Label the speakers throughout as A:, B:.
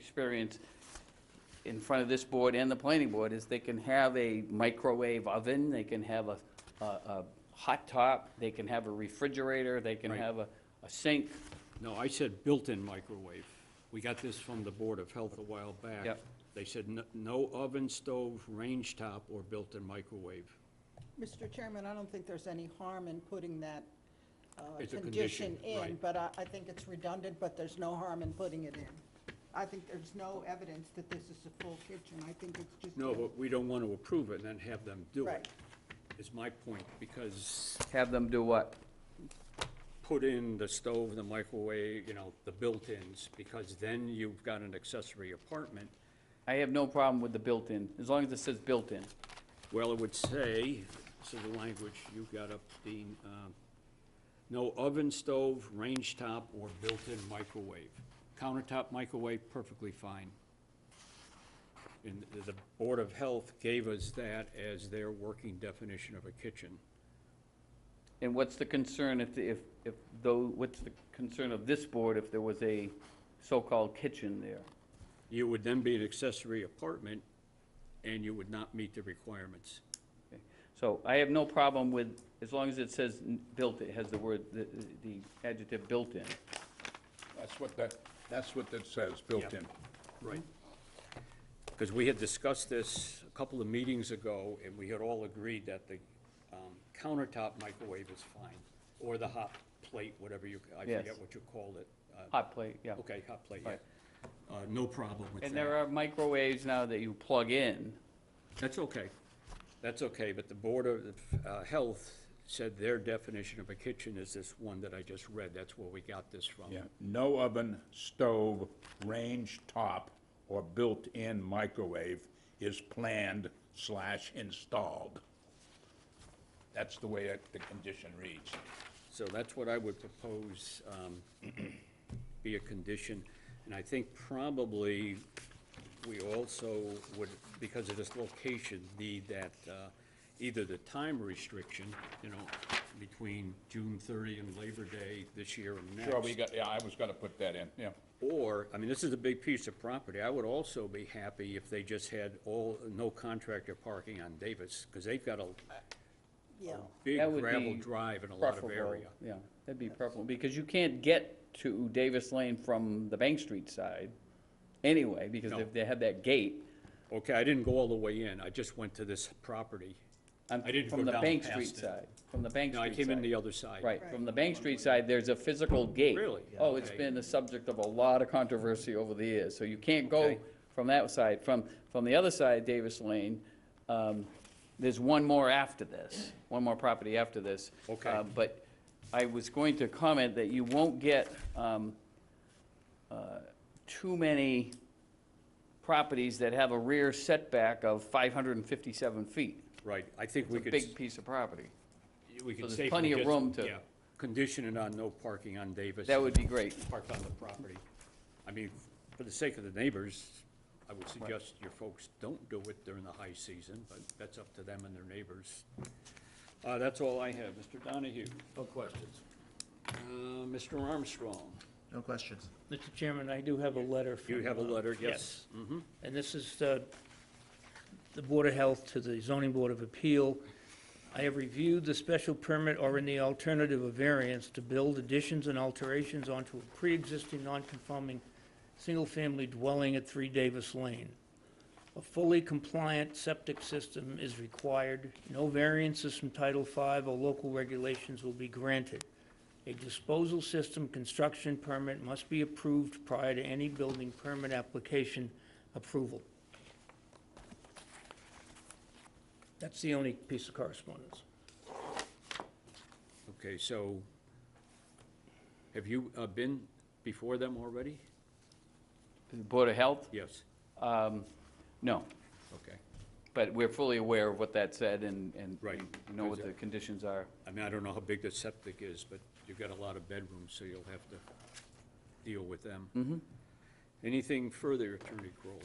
A: experience in front of this board and the planning board, is they can have a microwave oven, they can have a, a, a hot top, they can have a refrigerator, they can
B: Right.
A: have a, a sink.
B: No, I said built-in microwave. We got this from the Board of Health a while back.
A: Yep.
B: They said n- no oven, stove, range top, or built-in microwave.
C: Mr. Chairman, I don't think there's any harm in putting that uh,
B: It's a
C: condition
B: condition,
C: in,
B: right.
C: but I, I think it's redundant, but there's no harm in putting it in. I think there's no evidence that this is a full kitchen. I think it's just.
B: No,
C: a-
B: but we don't want to approve it and then have them do
C: Right.
B: it, is my point, because
A: Have them do what?
B: put in the stove, the microwave, you know, the built-ins, because then you've got an accessory apartment.
A: I have no problem with the built-in, as long as it says built-in.
B: Well, it would say, so the language you got up, Dean, um, no oven, stove, range top, or built-in microwave. Countertop microwave, perfectly fine. And the Board of Health gave us that as their working definition of a kitchen.
A: And what's the concern if, the- if, if, though, what's the concern of this board if there was a so-called kitchen there?
B: You would then be an accessory apartment, and you would not meet the requirements.
A: Okay. So I have no problem with, as long as it says n- built, it has the word, the, the adjective built-in.
D: That's what that, that's what that says, built
B: Yeah.
D: in.
B: Right. Because we had discussed this a couple of meetings ago, and we had all agreed that the um, countertop microwave is fine, or the hot plate, whatever you, I
A: Yes.
B: forget what you called it. Uh,
A: Hot plate, yeah.
B: Okay, hot plate, yeah.
A: Right.
B: Uh, No problem with that.
A: And there are microwaves now that you plug in.
B: That's okay. That's okay, but the Board of uh, Health said their definition of a kitchen is this one that I just read. That's where we got this from.
D: Yeah, no oven, stove, range top, or built-in microwave is planned slash installed. That's the way that the condition reads.
B: So that's what I would propose um, be a condition. And I think probably we also would, because of this location, need that, uh, either the time restriction, you know, between June 30 and Labor Day this year and next.
D: Sure, we got, yeah, I was gonna put that in, yeah.
B: Or, I mean, this is a big piece of property. I would also be happy if they just had all, no contractor parking on Davis, because they've got a
C: Yeah,
B: big
A: That would
B: gravel
A: be
B: drive and a lot of
A: Preferable,
B: area.
A: Yeah, that'd be preferable, because you can't get to Davis Lane from the Bank Street side anyway, because
B: No.
A: if they have that gate,
B: Okay, I didn't go all the way in, I just went to this property.
A: I'm-
B: I didn't
A: from
B: go
A: the
B: down
A: Bank
B: past
A: Street
B: it.
A: side, from the Bank
B: No, I
A: Street side.
B: came in the other side.
A: Right, from the Bank Street side, there's a physical gate.
B: Really?
A: Oh, it's
B: Okay.
A: been the subject of a lot of controversy over the years, so you can't go
B: Okay.
A: from that side. From, from the other side, Davis Lane, um, there's one more after this, one more property after this.
B: Okay.
A: Uh, But I was going to comment that you won't get um, uh, too many properties that have a rear setback of 557 feet.
B: Right, I think we
A: It's a
B: could,
A: big piece of property.
B: we could
A: there's
B: safely
A: plenty of
B: just-
A: room to-
B: yeah, Condition it on no parking on Davis.
A: That would be great.
B: Parked on the property. I mean, for the sake of the neighbors, I would suggest your folks don't do it during the high season, but that's up to them and their neighbors. Uh, that's all I have, Mr. Donahue.
E: No questions.
B: Uh, Mr. Armstrong,
E: No questions.
F: Mr. Chairman, I do have a letter from...
B: you have a
F: uh,
B: letter, yes? Mm-hmm.
F: And this is uh, the Board of Health to the Zoning Board of Appeal. I have reviewed the special permit or in the alternative of variance to build additions and alterations onto a pre-existing non-conforming single-family dwelling at 3 Davis Lane. A fully compliant septic system is required. No variances from Title V or local regulations will be granted. A disposal system construction permit must be approved prior to any building permit application approval. That's the only piece of correspondence.
B: Okay, so have you uh, been before them already?
A: Board of Health?
B: Yes,
A: Um, No,
B: okay.
A: but we're fully aware of what that said and, and
B: Right.
A: we know what the conditions are.
B: I mean, I don't know how big the septic is, but you've got a lot of bedrooms, so you'll have to deal with them. Mm-hmm. Anything further, Attorney Kroll?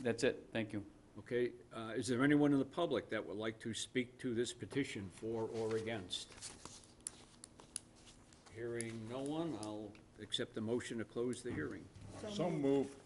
A: That's it, thank you.
B: Okay, uh, is there anyone in the public that would like to speak to this petition for or against? Hearing no one, I'll accept the motion to close the hearing.
D: So moved.